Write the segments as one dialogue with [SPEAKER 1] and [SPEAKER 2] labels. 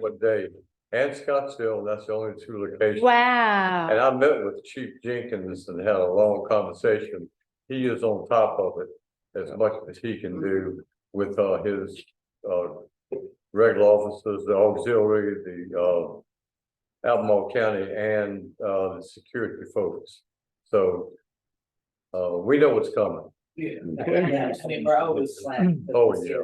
[SPEAKER 1] What day? And Scottsdale, that's the only two locations. And
[SPEAKER 2] Wow.
[SPEAKER 1] I met with Chief Jenkins and had a long conversation. He is on top of it as much as he can do with uh his uh regular officers, the auxiliary, the uh Albemarle County and uh the security folks. So uh we know what's coming.
[SPEAKER 3] Yeah, I mean, we're always slack.
[SPEAKER 1] Oh, yeah.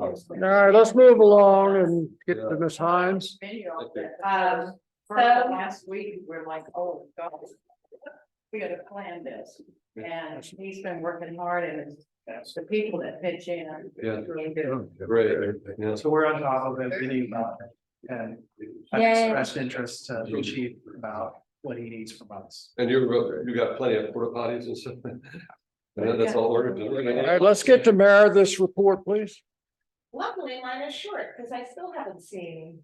[SPEAKER 4] All right, let's move along and get to Ms. Hines.
[SPEAKER 3] Video of that.
[SPEAKER 2] Um,
[SPEAKER 3] For
[SPEAKER 2] So-
[SPEAKER 3] last week, we're like, oh, God. We gotta plan this, and he's been working hard and it's the people that pitch in. are
[SPEAKER 5] Yeah.
[SPEAKER 3] really good.
[SPEAKER 5] Great. Yeah.
[SPEAKER 6] So we're on top of it, meeting about it, and I
[SPEAKER 2] Yay.
[SPEAKER 6] expressed interest to the chief about what he needs from us.
[SPEAKER 5] And you're, you got plenty of porta potties and stuff. And then that's all ordered.
[SPEAKER 4] All right, let's get to Mayor this report, please.
[SPEAKER 7] Luckily, mine is short, because I still haven't seen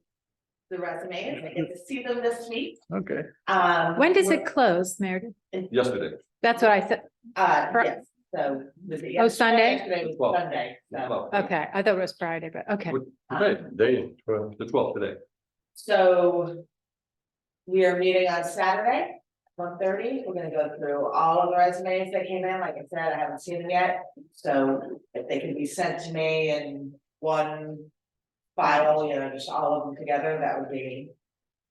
[SPEAKER 7] the resumes, I get to see them this week.
[SPEAKER 4] Okay.
[SPEAKER 7] Um.
[SPEAKER 2] When does it close, Meredith?
[SPEAKER 5] Yesterday.
[SPEAKER 2] That's what I said.
[SPEAKER 7] Uh,
[SPEAKER 2] Fri-
[SPEAKER 7] yes, so. was it
[SPEAKER 2] Oh,
[SPEAKER 7] yesterday?
[SPEAKER 2] Sunday?
[SPEAKER 7] Yesterday was
[SPEAKER 5] Twelve.
[SPEAKER 7] Sunday, so. um,
[SPEAKER 5] Well,
[SPEAKER 2] Okay, I thought it was Friday, but okay.
[SPEAKER 5] Today,
[SPEAKER 1] Day twelve.
[SPEAKER 5] the twelfth today.
[SPEAKER 7] So. We are meeting on Saturday, one thirty, we're gonna go through all of the resumes that came in, like I said, I haven't seen them yet. So if they can be sent to me in one file, you know, just all of them together, that would be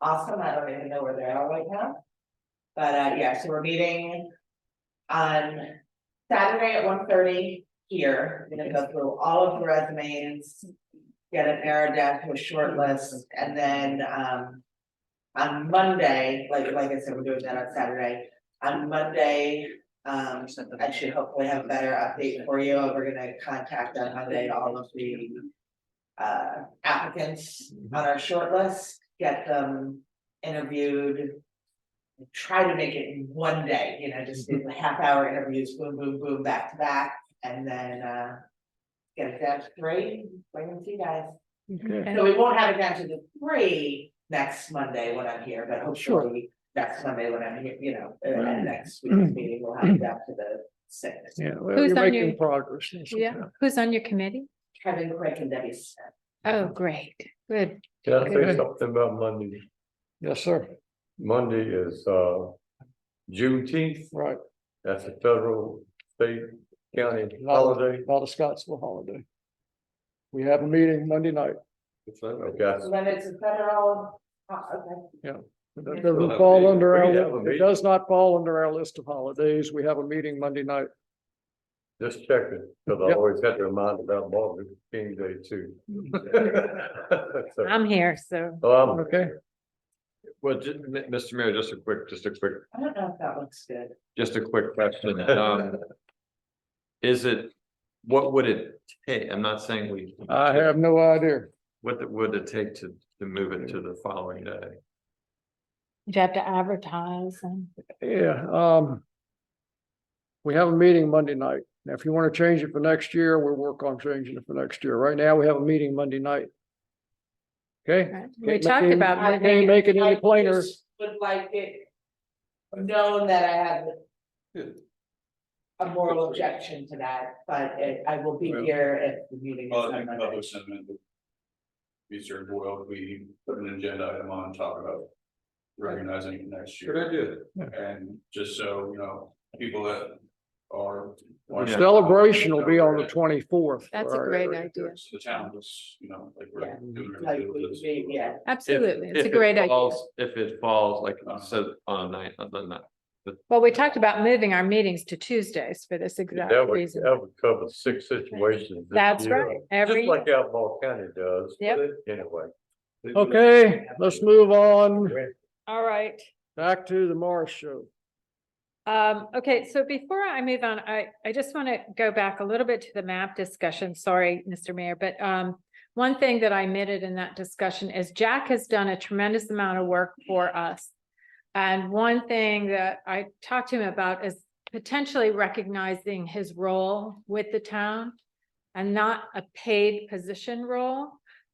[SPEAKER 7] awesome, I don't even know where they are right now. But uh, yeah, so we're meeting on Saturday at one thirty here, we're gonna go through all of the resumes. Get it narrowed down to a short list, and then um. On Monday, like like I said, we're doing that on Saturday, on Monday, um, I should hopefully have a better update for you, we're gonna contact on Monday all of the. Uh, applicants on our short list, get them interviewed. Try to make it in one day, you know, just do the half hour interviews, boom, boom, boom, back to back, and then uh. Get it down to three, wait and see guys,
[SPEAKER 2] Okay.
[SPEAKER 7] so we won't have it down to the three next Monday when I'm here, but hopefully. Next Monday when I'm here, you know, uh,
[SPEAKER 4] Right.
[SPEAKER 7] at next week's meeting, we'll have it down to the six.
[SPEAKER 4] Yeah, well,
[SPEAKER 2] Who's
[SPEAKER 4] you're
[SPEAKER 2] on
[SPEAKER 4] making
[SPEAKER 2] your-
[SPEAKER 4] progress. That's
[SPEAKER 2] Yeah,
[SPEAKER 4] okay.
[SPEAKER 2] who's on your committee?
[SPEAKER 7] Kevin Quick and Debbie Smith.
[SPEAKER 2] Oh, great, good.
[SPEAKER 1] Can I say
[SPEAKER 4] Okay.
[SPEAKER 1] something about Monday?
[SPEAKER 4] Yes, sir.
[SPEAKER 1] Monday is uh Juneteenth.
[SPEAKER 4] Right.
[SPEAKER 1] That's a federal, state, county
[SPEAKER 4] Not-
[SPEAKER 1] holiday.
[SPEAKER 4] Not a Scottsville holiday. We have a meeting Monday night.
[SPEAKER 5] It's fine.
[SPEAKER 1] Okay,
[SPEAKER 7] So Then it's a federal, oh, okay.
[SPEAKER 4] That
[SPEAKER 5] We'll have
[SPEAKER 4] doesn't
[SPEAKER 5] a
[SPEAKER 4] fall
[SPEAKER 5] meeting.
[SPEAKER 4] under
[SPEAKER 1] We can have a
[SPEAKER 4] our, it
[SPEAKER 1] meeting.
[SPEAKER 4] does not fall under our list of holidays. We have a meeting Monday night.
[SPEAKER 1] just checking, because I
[SPEAKER 4] Yep.
[SPEAKER 1] always had to remind about Martin Luther King Day too. So,
[SPEAKER 2] I'm here, so.
[SPEAKER 1] um,
[SPEAKER 4] Okay,
[SPEAKER 5] Well, ju- M- Mr. Mayor, just a quick, just a quick,
[SPEAKER 7] I don't know if that looks good.
[SPEAKER 5] just a quick question. Um, Is it, what would it take? I'm not saying we.
[SPEAKER 4] I have no idea.
[SPEAKER 5] What it- would it take to, to move it to the following day?
[SPEAKER 2] You have to advertise and.
[SPEAKER 4] Yeah, um. We have a meeting Monday night. Now, if you want to change it for next year, we'll work on changing it for next year. Right now, we have a meeting Monday night. Okay?
[SPEAKER 2] Right. We
[SPEAKER 4] Can't
[SPEAKER 2] talked
[SPEAKER 4] make it-
[SPEAKER 2] about
[SPEAKER 7] I
[SPEAKER 4] Can't
[SPEAKER 2] moving.
[SPEAKER 4] make it
[SPEAKER 7] I
[SPEAKER 4] any
[SPEAKER 7] just
[SPEAKER 4] plainer.
[SPEAKER 7] Would like it known that I have
[SPEAKER 5] Yeah.
[SPEAKER 7] a moral objection to that, but it- I will be here if the meeting is
[SPEAKER 8] Well,
[SPEAKER 7] on
[SPEAKER 8] I think
[SPEAKER 7] Monday.
[SPEAKER 8] public sentiment. would Be served well, if we put an agenda item on, and talk about. Recognizing it next year
[SPEAKER 5] idea.
[SPEAKER 8] and just so, you know, people that are.
[SPEAKER 5] Yeah.
[SPEAKER 4] Celebration will be on the twenty-fourth.
[SPEAKER 2] That's a great idea.
[SPEAKER 8] The town was, you know, like. we're
[SPEAKER 7] Yeah.
[SPEAKER 8] doing
[SPEAKER 7] Like,
[SPEAKER 8] everything with this.
[SPEAKER 7] we- yeah.
[SPEAKER 2] Absolutely, it's
[SPEAKER 5] If
[SPEAKER 2] a
[SPEAKER 5] it
[SPEAKER 2] great idea.
[SPEAKER 5] falls- If it falls, like, you said on a night, on the night.
[SPEAKER 2] Well, we talked about moving our meetings to Tuesdays for this exact
[SPEAKER 1] That would,
[SPEAKER 2] reason.
[SPEAKER 1] that would cover six situations. this
[SPEAKER 2] That's
[SPEAKER 1] year,
[SPEAKER 2] right, every,
[SPEAKER 1] Just like Albemarle County does. but Anyway.
[SPEAKER 4] Okay, let's move on
[SPEAKER 2] all right.
[SPEAKER 4] back to the Morris Show.
[SPEAKER 2] Um, okay, so before I move on, I, I just want to go back a little bit to the map discussion. Sorry, Mr. Mayor, but, um, one thing that I omitted in that discussion is Jack has done a tremendous amount of work for us. And one thing that I talked to him about is potentially recognizing his role with the town and not a paid position role,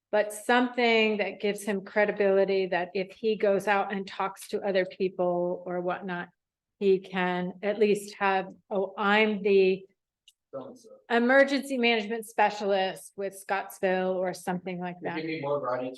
[SPEAKER 2] but something that gives him credibility that if he goes out and talks to other people or whatnot, he can at least have, oh, I'm the emergency management specialist with Scottsville or something like that.
[SPEAKER 3] Give me more variety